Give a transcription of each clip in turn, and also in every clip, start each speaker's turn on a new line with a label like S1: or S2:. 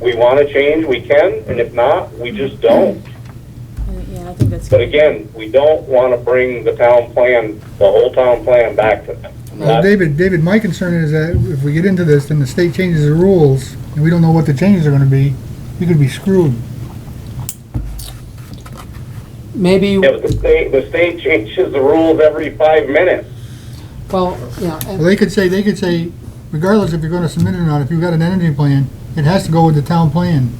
S1: we want to change, we can, and if not, we just don't.
S2: Yeah, I think that's.
S1: But again, we don't want to bring the town plan, the whole town plan back to them.
S3: Well, David, David, my concern is that if we get into this, then the state changes the rules, and we don't know what the changes are gonna be, we could be screwed.
S4: Maybe,
S1: Yeah, but the state, the state changes the rules every five minutes.
S4: well, yeah, and-
S3: Well, they could say, they could say, regardless if you're gonna submit it or not, if you've got an energy plan, it has to go with the town plan.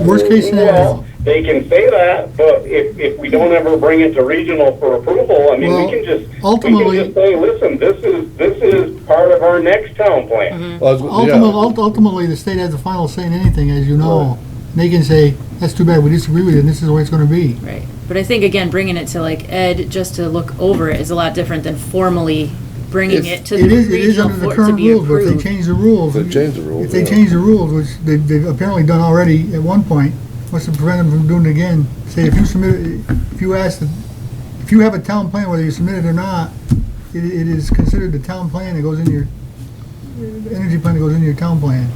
S3: Worst
S1: Well,
S3: case scenario.
S1: They can say that, but if, if we don't ever bring it to regional for approval, I mean,
S3: Well,
S1: we can just, we can
S3: ultimately-
S1: just say, listen, this is, this is part of our next town plan.
S5: Well, I was- yeah.
S3: Ultimately, ultimately, the state has the final say in anything, as you know. They can say, that's too bad, we disagree with it, and this is the way it's gonna be.
S2: Right, but I think again, bringing it to like Ed, just to look over it is a lot different than formally bringing
S5: It's-
S2: it to
S3: It
S2: the
S3: is, it is
S2: regional
S3: under the
S2: for it to
S3: current
S2: be
S3: rules, but if they
S2: approved.
S3: change the rules.
S5: If they change the rules,
S3: If they
S5: yeah.
S3: change the rules, which they- they've apparently done already at one point, what's to prevent them from doing it again? Say, if you submit, if you ask, the- if you have a town plan, whether you submit it or not, it, it is considered the town plan that goes in your, the energy plan that goes into your town plan.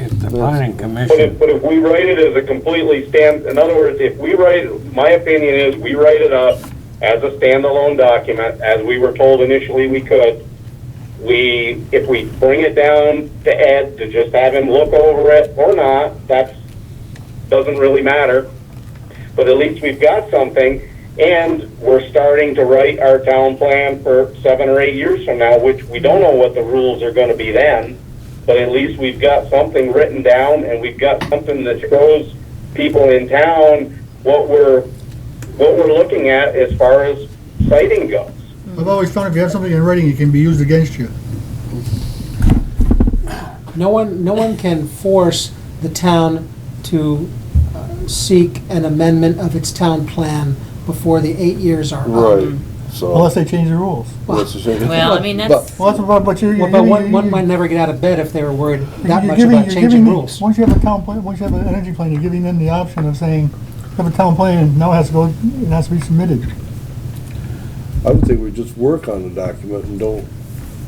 S6: If the planning
S1: But if,
S6: commission,
S1: but if we write it as a completely stand, in other words, if we write, my opinion is, we write it up as a standalone document, as we were told initially we could. We, if we bring it down to Ed to just have him look over it or not, that's, doesn't really matter. But at least we've got something, and we're starting to write our town plan for seven or eight years from now, which we don't know what the rules are gonna be then, but at least we've got something written down, and we've got something that shows people in town what we're, what we're looking at as far as sighting goes.
S2: Hmm.
S3: I've always found if you have something in writing, it can be used against you.
S4: no one, no one can force the town to uh, seek an amendment of its town plan before the eight years are up.
S3: Um,
S5: Right, so.
S3: Unless they change the rules.
S5: what's the change?
S2: Well, I mean,
S5: But-
S2: that's-
S3: Well, that's what, but you're.
S4: Well, But one, one might never get out of bed if they were worried that
S3: You're
S4: much
S3: giving-
S4: about
S3: you're
S4: changing
S3: giving the-
S4: rules.
S3: Once you have a town plan, once you have an energy plan, you're giving them the option of saying, "You have a town plan, now it has to go, it has to be submitted.
S5: I would think we just work on the document and don't,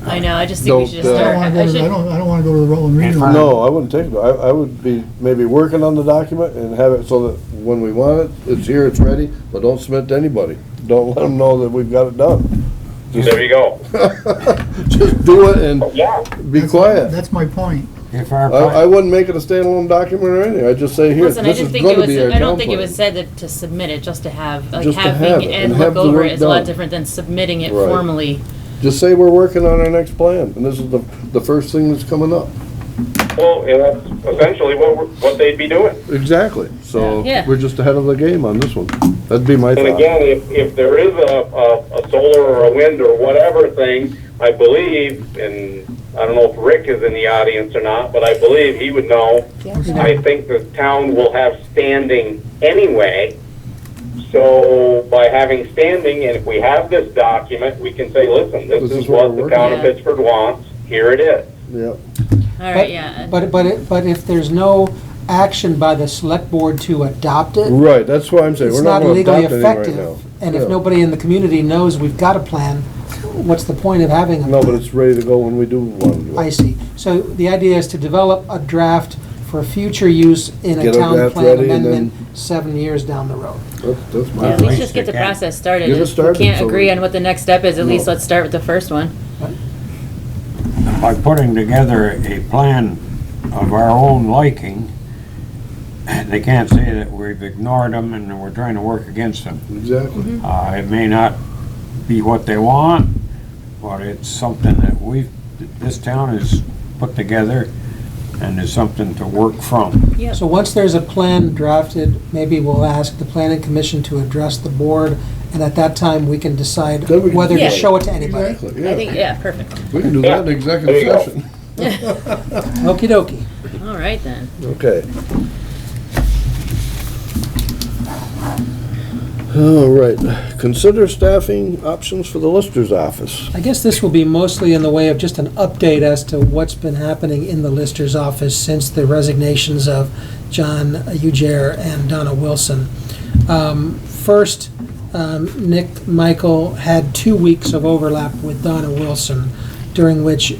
S2: I know, I just think we
S5: Don't,
S2: should
S5: uh,
S2: just
S3: I
S2: start.
S3: don't wanna
S2: I
S3: go to, the- I
S2: should,
S3: don't, I don't wanna go to the Rutland
S6: And
S3: Regional.
S6: Right.
S5: no, I wouldn't take it. I, I would be maybe working on the document and have it so that when we want it, it's here, it's ready, but don't submit to anybody. Don't let them know that we've got it done.
S1: There you go.
S5: Just do it and
S1: Yeah.
S5: be
S3: That's-
S5: quiet.
S3: That's my point.
S6: if our,
S5: I, I
S6: pla-
S5: wouldn't make it a standalone document or anything. I'd just say, here,
S2: listen, I
S5: this
S2: didn't
S5: is
S2: think it
S5: gonna
S2: was,
S5: be our
S2: I don't
S5: town
S2: think it was said
S5: plan.
S2: that to submit it, just to have, like
S5: Just to have
S2: having
S5: it
S2: Ed
S5: and
S2: look
S5: have the
S2: over
S5: work
S2: it is a lot
S5: done.
S2: different than submitting it
S5: Right.
S2: formally.
S5: Just say we're working on our next plan and this is the, the first thing that's coming up.
S1: Well, and that's essentially what, we're- what they'd be doing.
S5: Exactly. So
S2: Yeah.
S5: we're just ahead of the game on this one. That'd be my
S1: And
S5: thought.
S1: again, if, if there is a, a, a solar or a wind or whatever thing, I believe, and I don't know if Rick is in the audience or not, but I believe he would know. I think the town will have standing anyway. So by having standing, and if we have this document, we can say, listen, this
S5: This
S1: is
S5: is
S1: what
S5: what we're
S1: the
S5: working
S1: town of
S2: on.
S1: Pittsford wants, here it is.
S5: Yeah.
S2: All right, yeah. uh,
S4: But, but, it- but if there's no action by the select board to adopt it,
S5: Right, that's why I'm saying,
S4: it's
S5: we're
S4: not
S5: not gonna
S4: legally
S5: adopt anything right now.
S4: effective. And if
S5: Yeah.
S4: nobody in the community knows we've got a plan, what's the point of having a
S5: No, but it's ready to go when we do want to do
S4: I
S5: it.
S4: see. So the idea is to develop a draft for future use in a
S5: Get a
S4: town
S5: draft
S4: plan
S5: ready and
S4: amendment seven years down the road.
S5: That's, that's
S2: Yeah,
S5: my,
S2: At least
S6: least
S2: just get
S6: they
S2: the
S6: can.
S2: process started.
S5: Get it
S2: If we
S5: started,
S2: can't
S5: so we-
S2: agree on what the next step is, at least
S5: No.
S2: let's start with the first one.
S6: by putting together a plan of our own liking, they can't say that we've ignored them and that we're trying to work against them.
S5: exactly.
S2: Mm-hmm.
S6: Uh, it may not be what they want, but it's something that we've, this town has put together and is something to work from.
S2: Yep.
S4: So once there's a plan drafted, maybe we'll ask the planning commission to address the board, and at that time, we can decide
S5: Then we can
S4: whether to
S2: decide.
S4: show it to anybody.
S5: Exactly,
S2: I think,
S5: yeah.
S2: yeah, perfect.
S5: We can do that in executive
S1: There you go.
S5: session.
S4: Okey dokey.
S2: All right then.
S5: Okay. All right, consider staffing options for the Lister's office.
S4: I guess this will be mostly in the way of just an update as to what's been happening in the Lister's office since the resignations of John Ujair and Donna Wilson. Um, First, um, Nick Michael had two weeks of overlap with Donna Wilson, during which